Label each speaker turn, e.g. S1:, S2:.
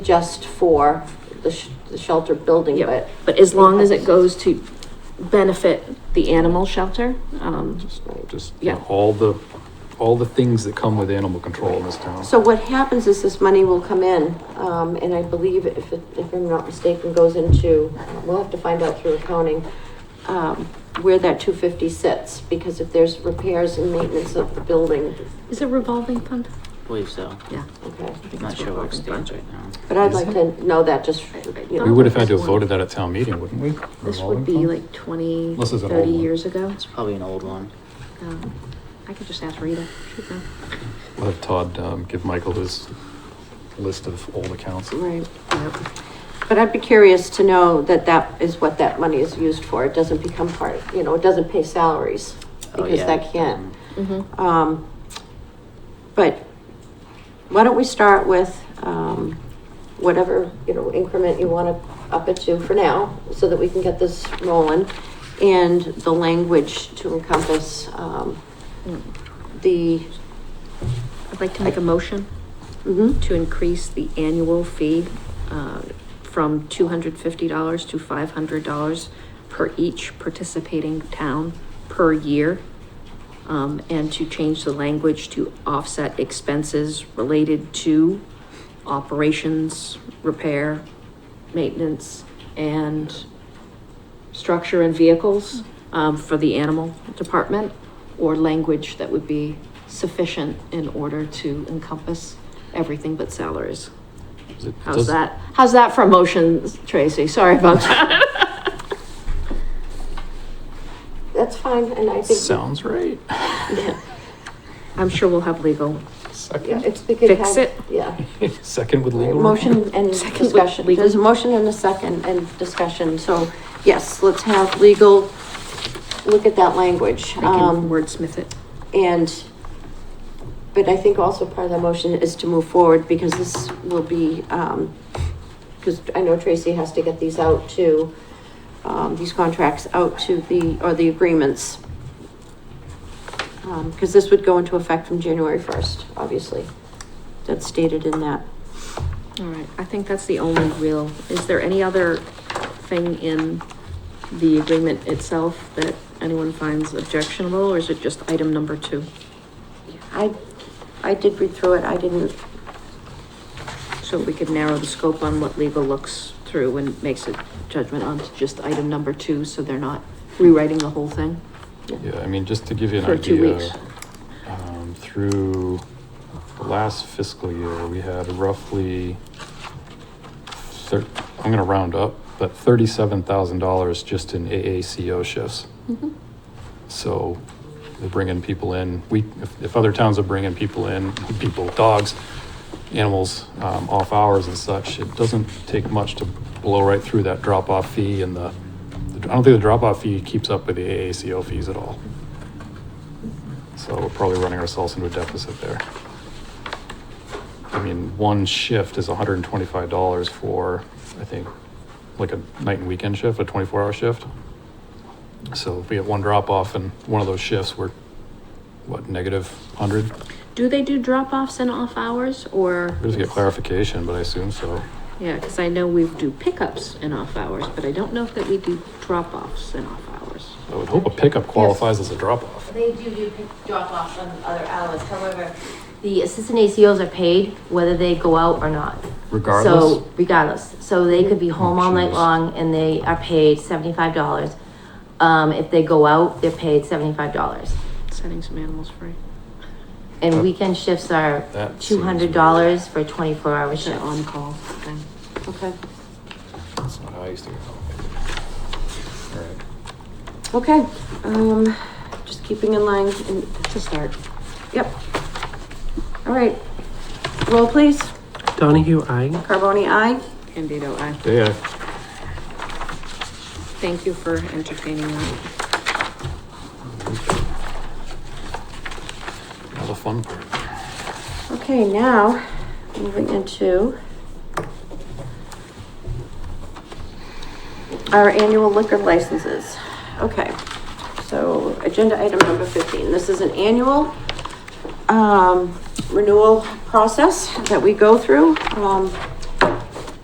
S1: just for the, sh- the shelter building,
S2: Yeah.
S1: but.
S2: But as long as it goes to benefit the animal shelter, um,
S3: Just, uh, just,
S2: Yeah.
S3: all the, all the things that come with animal control in this town.
S1: So what happens is this money will come in, um, and I believe if it, if I'm not mistaken, goes into, we'll have to find out through accounting, um, where that two fifty sits, because if there's repairs and maintenance of the building,
S2: is it revolving fund?
S4: believe so.
S2: Yeah.
S1: okay.
S2: I think
S4: Not
S2: it's
S4: sure where it
S2: revolving fund.
S4: stands right now.
S1: But I'd like to know that just, you
S3: We
S1: know,
S3: would have had to have voted that at town meeting, wouldn't we?
S2: This
S3: Revolving
S2: would be
S3: fund?
S2: like 20,
S3: This is an
S2: 30
S3: old one.
S2: years ago.
S4: It's probably an old one.
S2: Um, I could just ask Rita. She'd know.
S3: We'll have Todd, um, give Michael his list of old accounts.
S1: right. But I'd be curious to know that that is what that money is used for, it doesn't become part, you know, it doesn't pay salaries,
S4: Oh,
S1: because
S4: yeah.
S1: that can't.
S2: Mhm.
S1: Um, but why don't we start with, um, whatever, you know, increment you wanna up it to for now, so that we can get this rolling, and the language to encompass, um,
S2: Mm.
S1: the,
S2: I'd like to make a motion
S1: mhm,
S2: to increase the annual fee uh, from $250 to $500 per each participating town per year. Um, And to change the language to offset expenses related to operations, repair, maintenance, and structure and vehicles um, for the animal department or language that would be sufficient in order to encompass everything but salaries.
S3: Is it-
S2: How's
S3: does-
S2: that? How's that for motions, Tracy? Sorry about that.
S1: that's fine, and I think.
S3: Sounds right.
S2: I'm sure we'll have legal.
S1: Yeah,
S3: Second,
S1: it's, we could
S2: Fix
S1: have-
S2: it.
S1: Yeah.
S3: second with legal.
S1: Motion and
S2: Second with
S1: discussion.
S2: legal.
S1: There's a motion and a second and discussion, so yes, let's have legal look at that language.
S2: I
S1: Um,
S2: can wordsmith it.
S1: And, but I think also part of the motion is to move forward because this will be, um, because I know Tracy has to get these out to, um, these contracts out to the, or the agreements. Um, because this would go into effect from January first, obviously. That's stated in that.
S2: All right, I think that's the only real, is there any other thing in the agreement itself that anyone finds objectionable, or is it just item number two?
S1: I, I did read through it. I didn't,
S2: So we could narrow the scope on what legal looks through and makes a judgment on to just item number two, so they're not rewriting the whole thing
S3: Yeah, I mean, just to give you an
S2: for two
S3: idea,
S2: weeks.
S3: um, through the last fiscal year, we had roughly thir- I'm gonna round up, but thirty-seven thousand dollars just in AACO shifts.
S1: Mm-hmm.
S3: So they're bringing people in. We, if, if other towns are bringing people in, people, dogs, animals, um, off hours and such, it doesn't take much to blow right through that drop-off fee and the, I don't think the drop-off fee keeps up with the AACO fees at all. So we're probably running ourselves into a deficit there. I mean, one shift is hundred and twenty-five dollars for, I think, like a night and weekend shift, a twenty-four hour shift. So if we get one drop off in one of those shifts, we're, what, negative hundred?
S2: Do they do drop-offs and off-hours, or?
S3: We just get clarification, but I assume so.
S2: Yeah, because I know we do pickups and off-hours, but I don't know that we do drop-offs and off-hours.
S3: I would hope a pickup qualifies as a drop off.
S5: They do do pick- drop-offs on other hours, however, the assistant ACOs are paid whether they go out or not.
S3: Regardless? Oh,
S5: So regardless, so they could be home all night
S3: Jeez.
S5: long and they are paid seventy-five dollars. Um, if they go out, they're paid seventy-five dollars.
S2: Setting some animals free.
S5: And weekend shifts are
S3: That seems
S5: two hundred dollars for a twenty-four hour
S2: It's an
S5: shift.
S2: on-call thing.
S1: okay.
S3: That's not how I used to. go. All right.
S1: Okay, um, just keeping in line and to start. Yep. All right. Roll please.
S6: Donahue, aye.
S1: Carboni, aye.
S2: Candido, I
S3: Yeah,
S2: thank you for entertaining me.
S3: now the fun part.
S1: Okay, now, moving into our annual liquor licenses. Okay, so agenda item number fifteen, this is an annual um, renewal process that we go through. Um,